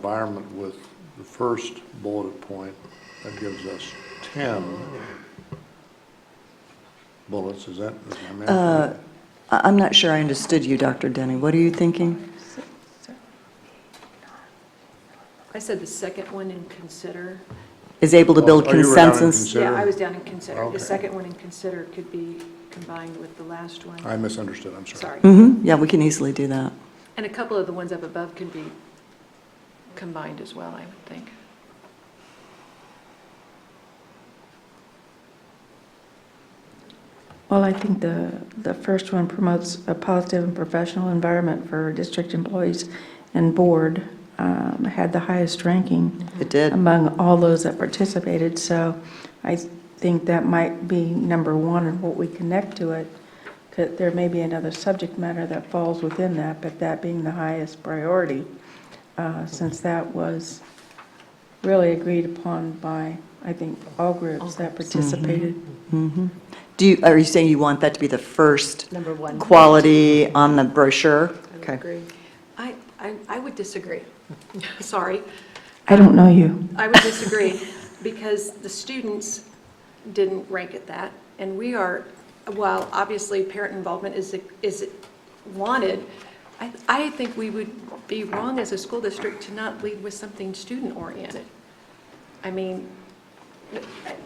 environment with the first bulleted point, that gives us ten bullets, is that, is my math right? I- I'm not sure I understood you, Dr. Denny. What are you thinking? I said the second one in consider. Is able to build Oh, you were having consensus? Yeah, I Consider. was down in consider. Okay. The second one in consider could be combined with the last one. I misunderstood, I'm sorry. Sorry. hmm yeah, we can easily do that. And a couple of the ones up above can be combined as well, I would think. Well, I think the, the first one promotes a positive and professional environment for district employees and board, um, had the highest ranking It did. among all those that participated, so I think that might be number one and what we connect to it. 'Cause There may be another subject matter that falls within that, but that being the highest priority, uh, since that was really agreed upon by, I think, all groups that participated. Mhm. Do you, are you saying you want that to be the first Number one. quality on the brochure? Okay. I, I, I would disagree. Sorry. I don't know you. I would disagree, because the students didn't rank at that, and we are, while obviously parent involvement is, is wanted, I, I think we would be wrong as a school district to not lead with something student-oriented. I mean,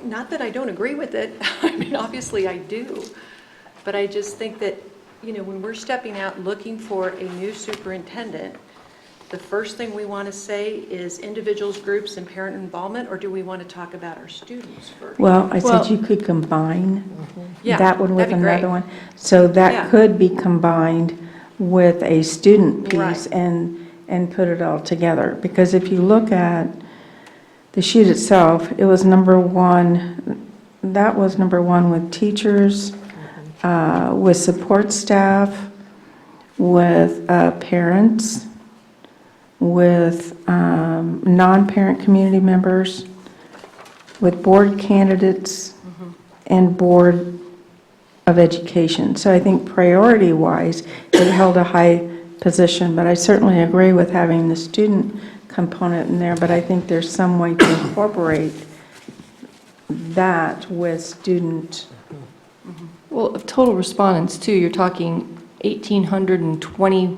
not that I don't agree with it, I mean, obviously I do, but I just think that, you know, when we're stepping out looking for a new superintendent, the first thing we want to say is individuals, groups, and parent involvement, or do we want to talk about our students first? Well, I said Well- Mm-hmm. you could combine Yeah, that one with that'd be great. another one. So Yeah. that could be combined with a student piece Right. and, and put it all together. Because if you look at the sheet itself, it was number one, that was number one with teachers, uh, with support staff, with uh, parents, with um, non-parent community members, with board candidates, and board of education. So I think priority-wise, it held a high position, but I certainly agree with having the student component in there, but I think there's some way to incorporate that with student, Well, of total respondents too, you're talking 1,800 and 20,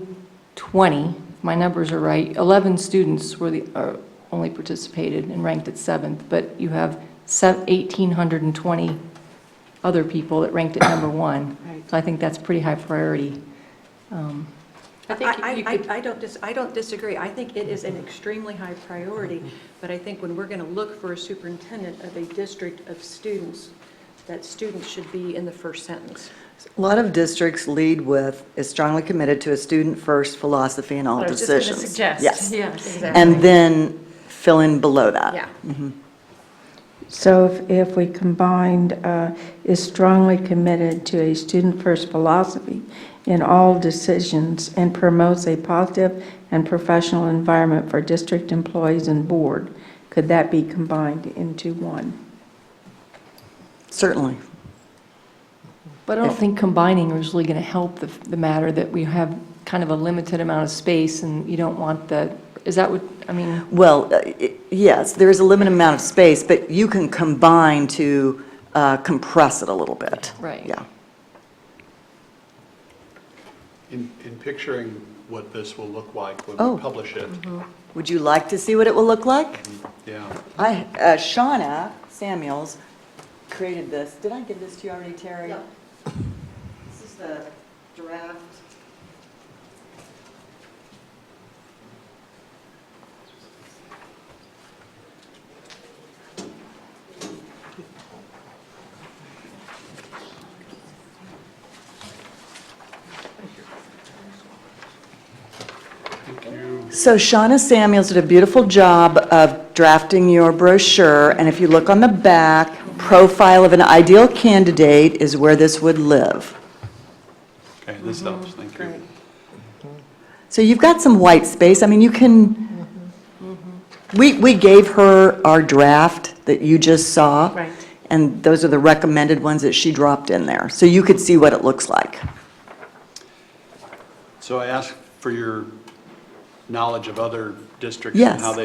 20, if my numbers are right, 11 students were the, are- only participated and ranked at seventh, but you have se- 1,820 other people that ranked at number one. So I think that's pretty high priority. Um, I, I think you- you I, could- I- I don't dis, I don't disagree. I think it is an extremely high priority, but I think when we're going to look for a superintendent of a district of students, that students should be in the first sentence. A lot of districts lead with, is strongly committed to a student-first philosophy in all What I was just gonna decisions. suggest. Yes. Yes. And then fill in below that. Yeah. so if, if we combined, uh, is strongly committed to a student-first philosophy in all decisions and promotes a positive and professional environment for district employees and board, could that be combined into one? Certainly. But I don't think combining is really going to help the, the matter that we have kind of a limited amount of space and you don't want the, is that what, I mean? Well, uh, i- yes, there is a limited amount of space, but you can combine to uh, compress it a little bit. Right. Yeah. In, in picturing what this will look like when Oh. we publish it, Would you like to see what it will look like? yeah. I, uh, Shauna Samuels created this. Did I give this to you already, Terry? No. This is the draft. So Shauna Samuels did a beautiful job of drafting your brochure, and if you look on the back, profile of an ideal candidate is where this would live. Okay, this Mm-hmm. helps, thank you. So you've got some white space, I mean, you can, we, we gave her our draft that you just saw. Right. And those are the recommended ones that she dropped in there, so you could see what it looks like. So I ask for your knowledge of other districts and Yes. how they